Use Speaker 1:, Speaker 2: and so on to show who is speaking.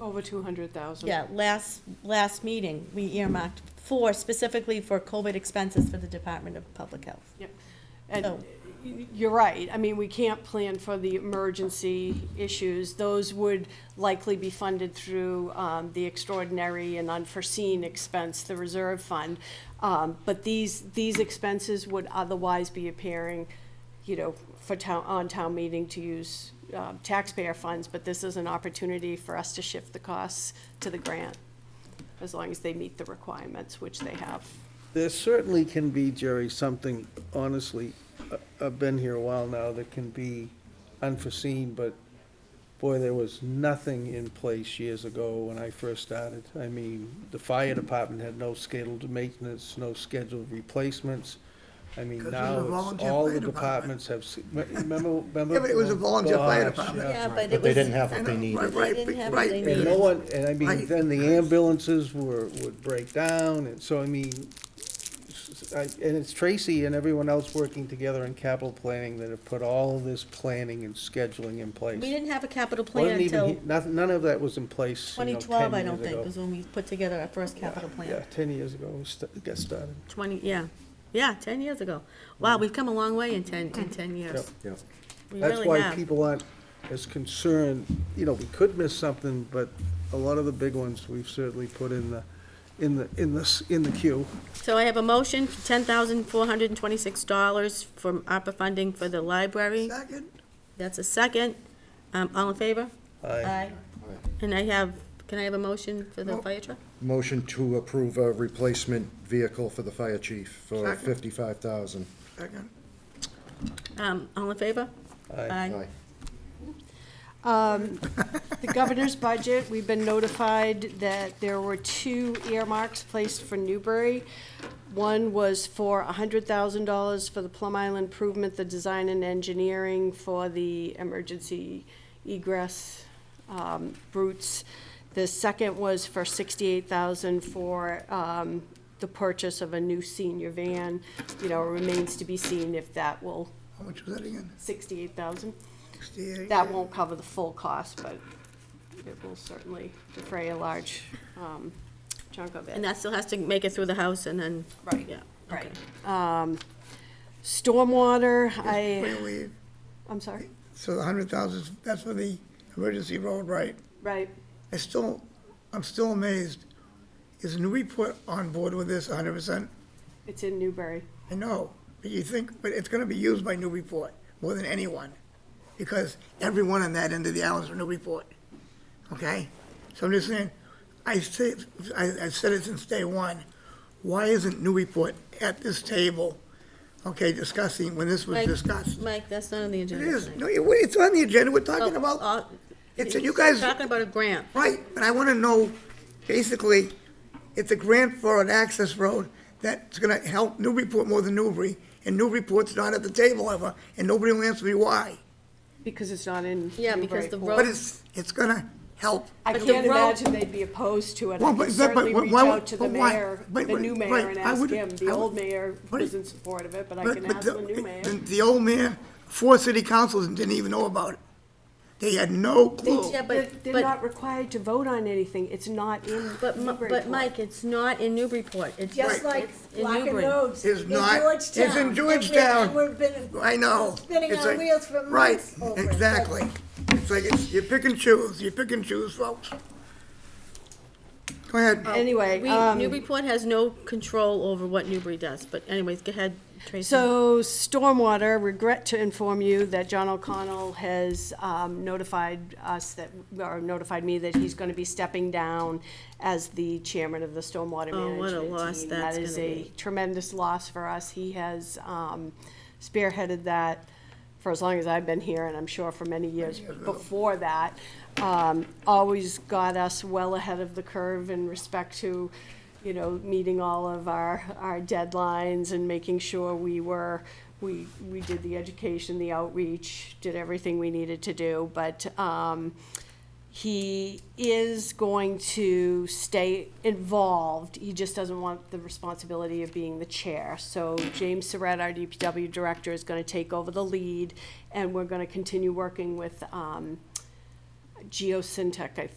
Speaker 1: Over two hundred thousand.
Speaker 2: Yeah, last, last meeting, we earmarked four specifically for COVID expenses for the Department of Public Health.
Speaker 1: And
Speaker 2: Oh.
Speaker 1: y- you're right, I mean, we can't plan for the emergency issues. Those would likely be funded through um, the extraordinary and unforeseen expense, the reserve fund. Um, But these, these expenses would otherwise be appearing, you know, for town, on town meeting to use uh, taxpayer funds, but this is an opportunity for us to shift the costs to the grant, as long as they meet the requirements, which they have.
Speaker 3: There certainly can be, Jerry, something, honestly, I- I've been here a while now, that can be unforeseen, but boy, there was nothing in place years ago when I first started. I mean, the fire department had no scheduled maintenance, no scheduled replacements. I mean,
Speaker 4: Because it was
Speaker 3: now
Speaker 4: a
Speaker 3: it's,
Speaker 4: volunteer
Speaker 3: all
Speaker 4: fire
Speaker 3: the
Speaker 4: department.
Speaker 3: departments have, s- remember, remember?
Speaker 4: Yeah, but it was a volunteer fire
Speaker 3: Gosh,
Speaker 4: department.
Speaker 3: yeah.
Speaker 2: but
Speaker 5: But they didn't have what they needed.
Speaker 4: Right, right,
Speaker 2: They didn't have what
Speaker 4: right.
Speaker 2: they
Speaker 3: And no
Speaker 2: needed.
Speaker 3: one, and I mean,
Speaker 4: Right.
Speaker 3: then the ambulances were, would break down, and so, I mean, s- I- and it's Tracy and everyone else working together in capital planning that have put all of this planning and scheduling in
Speaker 2: We
Speaker 3: place.
Speaker 2: didn't have a capital plan
Speaker 3: Wasn't even
Speaker 2: until
Speaker 3: he- Nothing, none of that was in place, you know,
Speaker 2: twenty twelve, I
Speaker 3: 10
Speaker 2: don't
Speaker 3: years
Speaker 2: think,
Speaker 3: ago.
Speaker 2: was when we put together our first capital
Speaker 3: Yeah,
Speaker 2: plan.
Speaker 3: ten years ago, we st- got started.
Speaker 2: Twenty, yeah, yeah, ten years ago. Wow, we've come a long way in ten, in ten years.
Speaker 5: Yeah.
Speaker 2: We
Speaker 3: That's
Speaker 2: really
Speaker 3: why
Speaker 2: have.
Speaker 3: people aren't as concerned, you know, we could miss something, but a lot of the big ones, we've certainly put in the, in the, in the, s- in the queue.
Speaker 2: So I have a motion, for ten thousand four hundred and twenty-six dollars from ARPA funding for the library.
Speaker 4: Second,
Speaker 2: That's a second. Um, all in favor?
Speaker 3: Aye.
Speaker 2: And I have, can I have a motion for the
Speaker 4: Mo-
Speaker 2: fire truck?
Speaker 5: Motion to approve a replacement vehicle for the fire chief for
Speaker 4: Second.
Speaker 5: fifty-five thousand.
Speaker 4: second,
Speaker 2: Um, all in favor? Aye.
Speaker 1: Um, The governor's budget, we've been notified that there were two earmarks placed for Newbury. One was for $100,000 for the Plum Island improvement, the design and engineering for the emergency egress um, routes. The second was for $68,000 for um, the purchase of a new senior van. You know, it remains to be seen if that will,
Speaker 4: how much was that again?
Speaker 1: 68,000.
Speaker 4: Sixty-eight?
Speaker 1: That won't cover the full cost, but it will certainly defray a large um, chunk of
Speaker 2: And
Speaker 1: it.
Speaker 2: that still has to make it through the house and then,
Speaker 1: Right,
Speaker 2: yeah.
Speaker 1: right.
Speaker 2: okay.
Speaker 1: Um, Stormwater,
Speaker 4: Wait,
Speaker 1: I,
Speaker 4: wait.
Speaker 1: I'm sorry,
Speaker 4: So the hundred thousand, that's for the emergency road, right?
Speaker 1: right,
Speaker 4: I still, I'm still amazed. Is Newburyport on board with this hundred percent?
Speaker 1: it's in Newbury.
Speaker 4: I know, but you think, but it's gonna be used by Newburyport more than anyone, because everyone on that end of the island is from Newburyport, okay? So I'm just saying, I say, I, I said it since day one, why isn't Newburyport at this table, okay, discussing, when this was
Speaker 2: Mike-
Speaker 4: discussed?
Speaker 2: Mike, that's not on the
Speaker 4: It
Speaker 2: agenda.
Speaker 4: is,
Speaker 2: tonight.
Speaker 4: no, it- it's on the agenda, we're talking
Speaker 2: Oh,
Speaker 4: about,
Speaker 1: uh,
Speaker 2: all-
Speaker 4: it's, you guys,
Speaker 2: Talking about a grant.
Speaker 4: right, and I wanna know, basically, it's a grant for an access road that's gonna help Newburyport more than Newbury, and Newburyport's not at the table ever, and nobody will answer me why.
Speaker 1: Because it's not in
Speaker 2: Yeah, because the
Speaker 1: Newburyport.
Speaker 2: road-
Speaker 4: But it's, it's gonna help.
Speaker 1: I
Speaker 2: But the
Speaker 1: can't
Speaker 2: road-
Speaker 1: imagine they'd be opposed to it.
Speaker 4: Well,
Speaker 1: I
Speaker 4: but
Speaker 1: could
Speaker 4: is that- but
Speaker 1: certainly
Speaker 4: why-
Speaker 1: reach
Speaker 4: why-
Speaker 1: out to the
Speaker 4: but why-
Speaker 1: mayor, the
Speaker 4: but- but-
Speaker 1: new
Speaker 4: right,
Speaker 1: mayor, and
Speaker 4: I
Speaker 1: ask
Speaker 4: would-
Speaker 1: him. The
Speaker 4: I would-
Speaker 1: old mayor
Speaker 4: but-
Speaker 1: was in support of it, but I
Speaker 4: But-
Speaker 1: can
Speaker 4: but
Speaker 1: ask
Speaker 4: the-
Speaker 1: the new mayor.
Speaker 4: the- The old man, four city councils didn't even know about it. They had no clue.
Speaker 1: They're
Speaker 2: Yeah, but,
Speaker 1: they're
Speaker 2: but,
Speaker 1: not required to vote on anything. It's not in
Speaker 2: but, Mi-
Speaker 1: Newburyport.
Speaker 2: but Mike, it's not in Newburyport. It's
Speaker 6: Just
Speaker 2: it's
Speaker 6: like
Speaker 2: in
Speaker 6: Black and
Speaker 2: Newbury.
Speaker 6: Rhodes
Speaker 4: It's
Speaker 6: in
Speaker 4: not- it's in
Speaker 6: Georgetown. And we-
Speaker 4: Georgetown.
Speaker 6: and we've been-
Speaker 4: I know.
Speaker 6: Spinning
Speaker 4: It's
Speaker 6: our
Speaker 4: like-
Speaker 6: wheels for months over
Speaker 4: Right,
Speaker 6: it.
Speaker 4: exactly. It's like, it's, you pick and choose, you pick and choose, folks. Go ahead.
Speaker 1: Anyway,
Speaker 2: We,
Speaker 1: um,
Speaker 2: Newburyport has no control over what Newbury does, but anyways, go ahead, Tracy.
Speaker 1: So, Stormwater, regret to inform you that John O'Connell has um, notified us that, or notified me that he's going to be stepping down as the chairman of the Stormwater
Speaker 2: Oh,
Speaker 1: Management
Speaker 2: what a loss
Speaker 1: Team.
Speaker 2: that's
Speaker 1: That is
Speaker 2: gonna
Speaker 1: a
Speaker 2: be.
Speaker 1: tremendous loss for us. He has um, spearheaded that for as long as I've been here, and I'm sure for many years before that. Um, Always got us well ahead of the curve in respect to, you know, meeting all of our, our deadlines and making sure we were, we, we did the education, the outreach, did everything we needed to do. But um, he is going to stay involved, he just doesn't want the responsibility of being the chair. So James Surratt, our DPW director, is gonna take over the lead, and we're gonna continue working with, um, GeoSyntech, I